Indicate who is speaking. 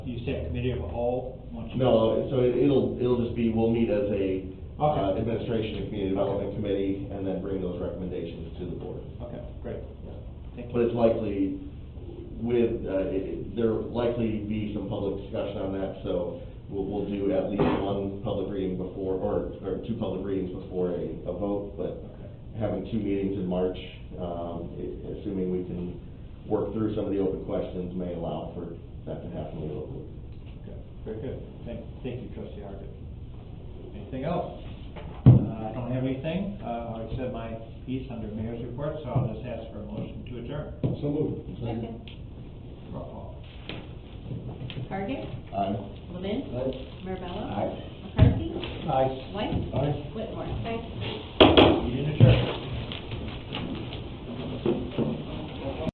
Speaker 1: you said committee of the whole? once you-
Speaker 2: No, so it- it'll, it'll just be, we'll meet as a uh,
Speaker 1: Okay.
Speaker 2: administration and community development committee and then bring those recommendations to the board.
Speaker 1: Okay, great, thank
Speaker 2: But
Speaker 1: you.
Speaker 2: it's likely with, uh, it- it- there'll likely be some public discussion on that, so we'll, we'll do at least one public reading before, or, or two public readings before a, a vote, but
Speaker 1: Okay.
Speaker 2: having two meetings in March, um, i- assuming we can work through some of the open questions may allow for that to happen a little bit.
Speaker 1: Okay, Very good. Thank, thank you, trustee Hargit. Anything else? Uh, I don't have anything. Uh, I said my piece under mayor's report, so I'll just ask for a motion to adjourn.
Speaker 2: So moved.
Speaker 3: Second.
Speaker 1: Roll call.
Speaker 3: Target.
Speaker 2: Aye.
Speaker 3: Levin.
Speaker 2: Aye.
Speaker 3: Mirabella.
Speaker 2: Aye.
Speaker 3: McCarthy.
Speaker 2: Aye.
Speaker 3: White.
Speaker 2: Aye.
Speaker 3: Whitmore. Aye.
Speaker 1: Meeting adjourned.